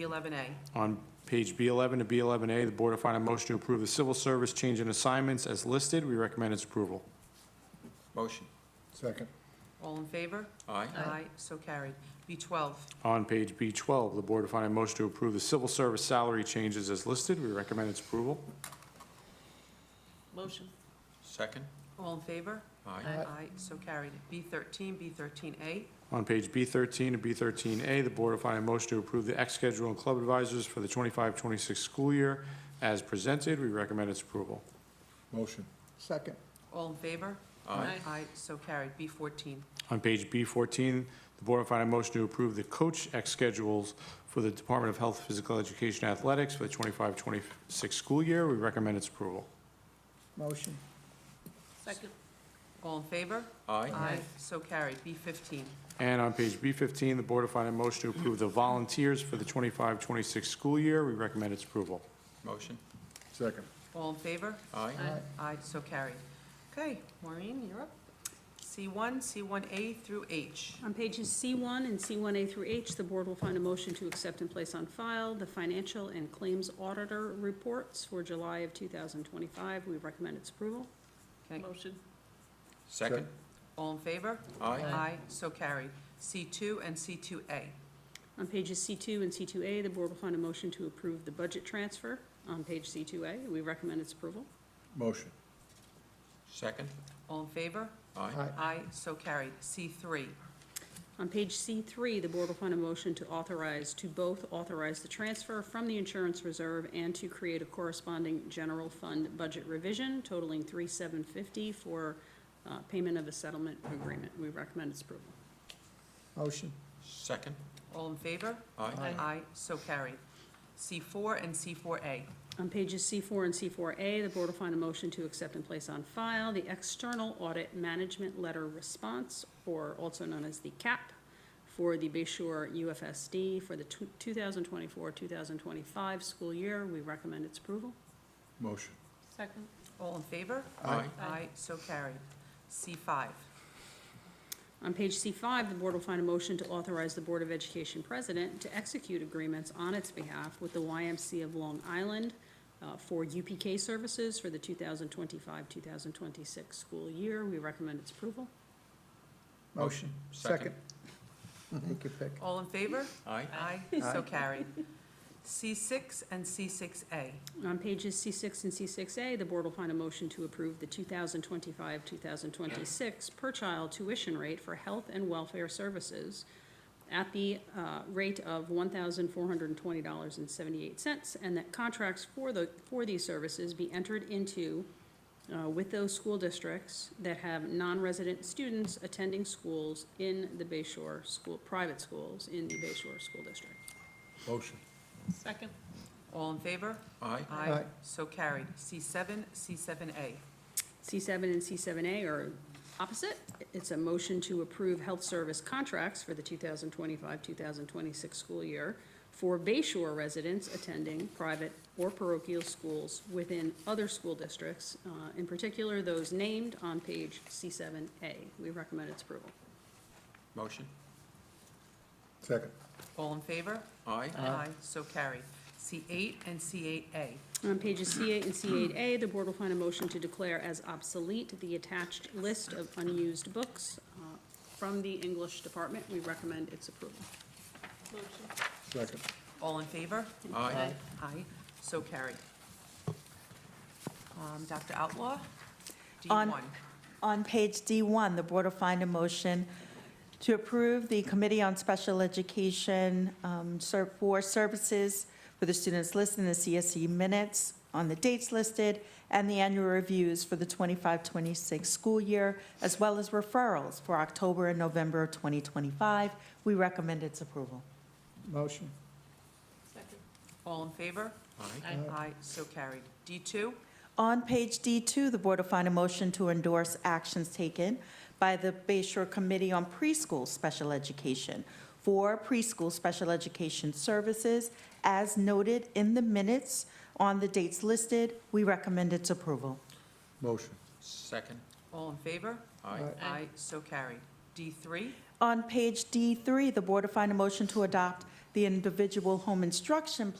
B11A. On page B11 to B11A, the board will find a motion to approve the civil service change in assignments as listed. We recommend its approval. Motion. Second, All in favor? Aye. Aye, so carried. B12, On page B12, the board will find a motion to approve the civil service salary changes as listed. We recommend its approval. Motion. Second. all in favor? Aye. Aye, so carried. B13, B13A, On page B13 to B13A, the board will find a motion to approve the X schedule and club advisors for the 25-26 school year as presented. We recommend its approval. motion. Second, all in favor? Aye. Aye, so carried. B14, On page B14, the board will find a motion to approve the coach X schedules for the Department of Health, Physical Education, and Athletics for the 25-26 school year. We recommend its approval. motion. Second. all in favor? Aye. so carried. B15, And on page B15, the board will find a motion to approve the volunteers for the 25-26 school year. We recommend its approval. Motion. Second. all in favor? Aye. Aye. Aye, so carried. Okay, Maureen, you're up. C1, C1A through H. On pages C1 and C1A through H, the board will find a motion to accept and place on file the financial and claims auditor reports for July of 2025. We recommend its approval. Okay, Motion. Second. All in favor? Aye. Aye, so carried. C2 and C2A. On pages C2 and C2A, the board will find a motion to approve the budget transfer on page C2A. We recommend its approval. Motion. Second. All in favor? Aye. Aye, so carried. C3, On page C3, the board will find a motion to authorize, to both authorize the transfer from the insurance reserve and to create a corresponding general fund budget revision totaling 3,750 for uh, payment of a settlement agreement. We recommend its approval. Motion. Second. all in favor? Aye. Aye, so carried. C4 and C4A. On pages C4 and C4A, the board will find a motion to accept and place on file the External Audit Management Letter Response, or also known as the CAP, for the Bayshore UFSD for the 2024-2025 school year. We recommend its approval. Motion. Second. All in favor? Aye. Aye, so carried. C5, On page C5, the board will find a motion to authorize the Board of Education president to execute agreements on its behalf with the YMC of Long Island uh, for UPK services for the 2025-2026 school year. We recommend its approval. Motion. Second. Take your pick. all in favor? Aye. Aye, so carried. C6 and C6A. On pages C6 and C6A, the board will find a motion to approve the 2025-2026 per-child tuition rate for health and welfare services at the uh, rate of $1,420.78, and that contracts for the, for these services be entered into uh, with those school districts that have non-resident students attending schools in the Bayshore School, private schools in the Bayshore School District. Motion. Second. All in favor? Aye. Aye, Aye. so carried. C7, C7A. C7 and C7A are opposite. It's a motion to approve health service contracts for the 2025-2026 school year for Bayshore residents attending private or parochial schools within other school districts, uh, in particular those named on page C7A. We recommend its approval. Motion. Second. All in favor? Aye. Aye, so carried. C8 and C8A. On pages C8 and C8A, the board will find a motion to declare as obsolete the attached list of unused books uh, from the English department. We recommend its approval. Second. All in favor? Aye. Aye, so carried. Um, Dr. Outlaw? On- D1. On page D1, the board will find a motion to approve the Committee on Special Education um, ser- for Services for the students listed in the CSE minutes on the dates listed and the annual reviews for the 25-26 school year, as well as referrals for October and November of 2025. We recommend its approval. Motion. All in favor? Aye. Aye. Aye, so carried. D2, On page D2, the board will find a motion to endorse actions taken by the Bayshore Committee on Preschool Special Education for preschool special education services as noted in the minutes on the dates listed. We recommend its approval. Motion. Second. all in favor? Aye. Aye, so carried. D3, On page D3, the board will find a motion to adopt the individual home instruction